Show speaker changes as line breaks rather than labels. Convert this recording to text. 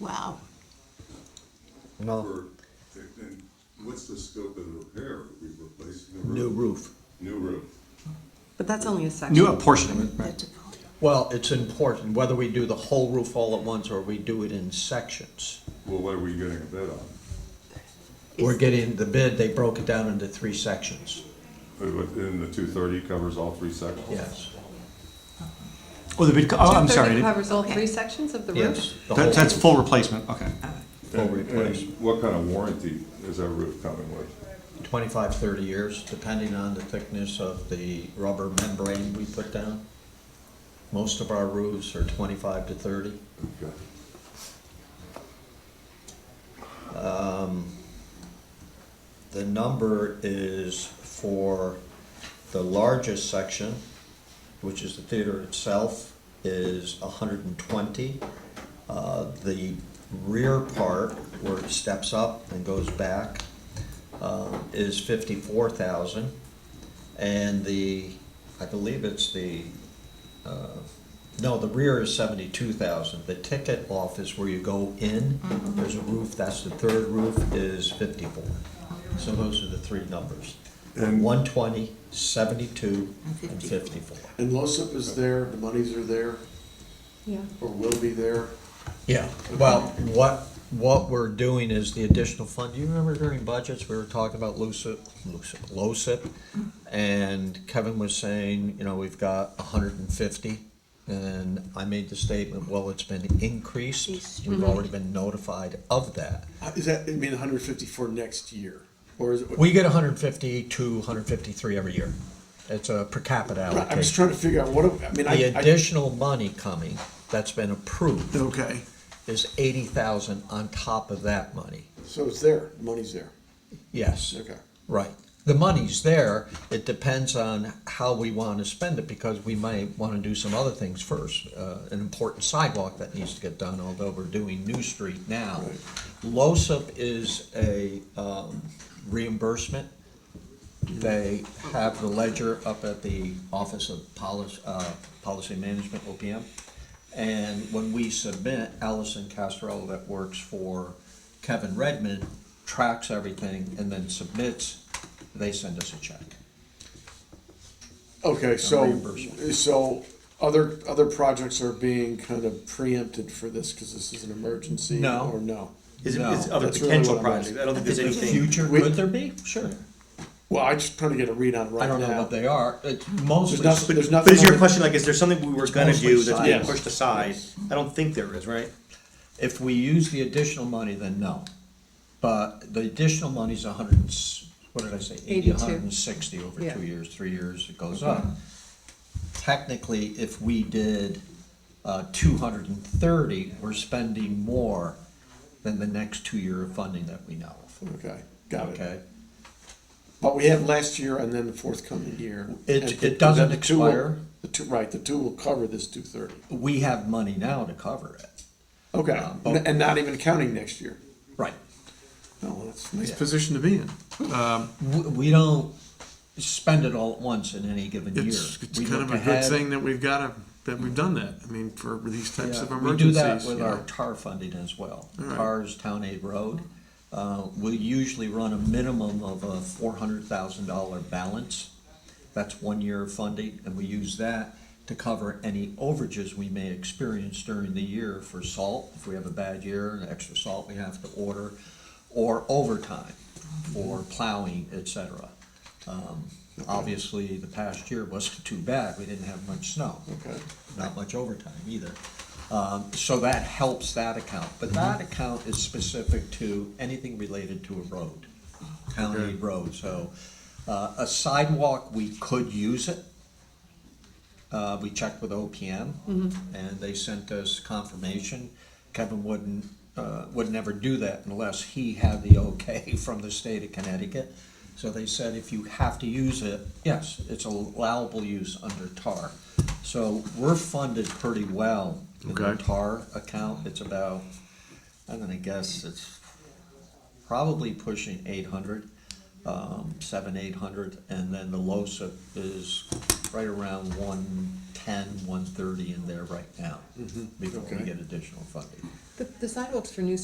Wow.
No,
For, and what's the scope of the repair? We replacing the
New
roof?
roof.
New roof.
But that's only a section.
New a portion of it, right?
That's a-
Well, it's important whether we do the whole roof all at once or we do it in sections.
Well, what are we getting a bid on?
We're getting the bid, they broke it down into three sections,
Uh, Within the two thirty covers all three sections?
yes.
Oh, the bid, co- oh, I'm
230
sorry.
Covers all
Okay.
three sections of the roof?
Yes. the whole
That- That's
roof,
full replacement, okay.
Full
And-
replacement,
And what kind of warranty is that roof coming with?
twenty-five, thirty years, depending on the thickness of the rubber membrane we put down. Most of our roofs are twenty-five to thirty.
Okay.
The number is for the largest section, which is the theater itself, is hundred and twenty. Uh, the rear part, where it steps up and goes back, uh, is fifty-four thousand. And the, I believe it's the, uh, no, the rear is seventy-two thousand. The ticket off is where you go in, there's a roof, that's the third roof, is fifty-four. So those are the three numbers.
And-
120, 72, and
And
54.
And LOSIP is there, the monies are there,
Yeah.
or will be there.
Yeah, well, what, what we're doing is the additional fund, do you remember during budgets, we were talking about LUCIP, LUCIP, LOCIP? And Kevin was saying, you know, we've got hundred and fifty, and I made the statement, well, it's been increased.
Increased.
We've already been notified of that.
Uh, Is that, I mean, hundred fifty for next year, or is it?
We get hundred and fifty to hundred and fifty-three every year. It's a per capita
Right,
allocation.
I'm just trying to figure out what, I mean,
The
I, I.
additional money coming that's been approved
Okay,
is eighty thousand on top of that money.
so it's there, money's there,
Yes.
okay.
Right. The money's there. It depends on how we want to spend it because we might want to do some other things first. Uh, an important sidewalk that needs to get done, although we're doing New Street now. LOSUP is a um, reimbursement. They have the ledger up at the Office of Policy, uh, Policy Management, OPM. And when we submit, Allison Castrell that works for Kevin Redmond tracks everything and then submits, they send us a check.
Okay, so,
reimbursement.
so other, other projects are being kind of preempted for this, cause this is an emergency?
No.
Or no?
Is it,
No,
it's other
that's really
potential
what I'm asking.
projects, I don't think there's anything,
Future,
We-
could there be? Sure.
Well, I'm just trying to get a read on right now.
I don't know what they are. It's
There's
mostly,
nothing, there's nothing.
but is
on
your
it-
question like, is there something we were gonna
mostly
do that's being
science.
pushed aside? I don't think there is, right?
if we use the additional money, then no. But the additional money's a hundred and, s- what did I say? Eighty,
Eighty-two.
a hundred and sixty over
Yeah.
two years, three years, it goes up. Technically, if we did, uh, two hundred and thirty, we're spending more than the next two-year of funding that we know of.
Okay, got it.
Okay?
But we had last year and then the forthcoming year.
It-
And
it
the-
doesn't
the two will-
expire.
The two, right, the two will cover this two thirty.
We have money now to cover it.
Okay,
Uh,
Um, N- and not even counting next year.
Right.
No, that's a nice
Yeah.
position to be in.
We, we don't spend it all at once in any given year.
It's, it's
We
kind
look
of a good
ahead.
thing that we've got a, that we've done that. I mean, for these types of
Yeah,
emergencies.
We do that with
you
our
know.
tar funding as well.
All right.
TAR's Town Aid Road. Uh, We usually run a minimum of a four hundred thousand dollar balance. That's one year of funding, and we use that to cover any overages we may experience during the year for salt. If we have a bad year, and extra salt we have to order, or overtime, or plowing, et cetera. Um, Obviously, the past year wasn't too bad. We didn't have much snow
Okay.
not much overtime either. Um, so that helps that account, but that account is specific to anything related to a road, county road, so. Uh, a sidewalk, we could use it. Uh, we checked with OPM and they sent us confirmation. Kevin wouldn't, uh, would never do that unless he had the okay from the state of Connecticut. So they said if you have to use it, yes, it's allowable use under TAR. So we're funded pretty well in the
Okay.
TAR account. It's about, I'm gonna guess it's probably pushing eight hundred. um, seven, eight hundred, and then the LOSIP is right around one ten, one thirty in there right now, before we
okay.
get additional funding.
The, the sidewalks for New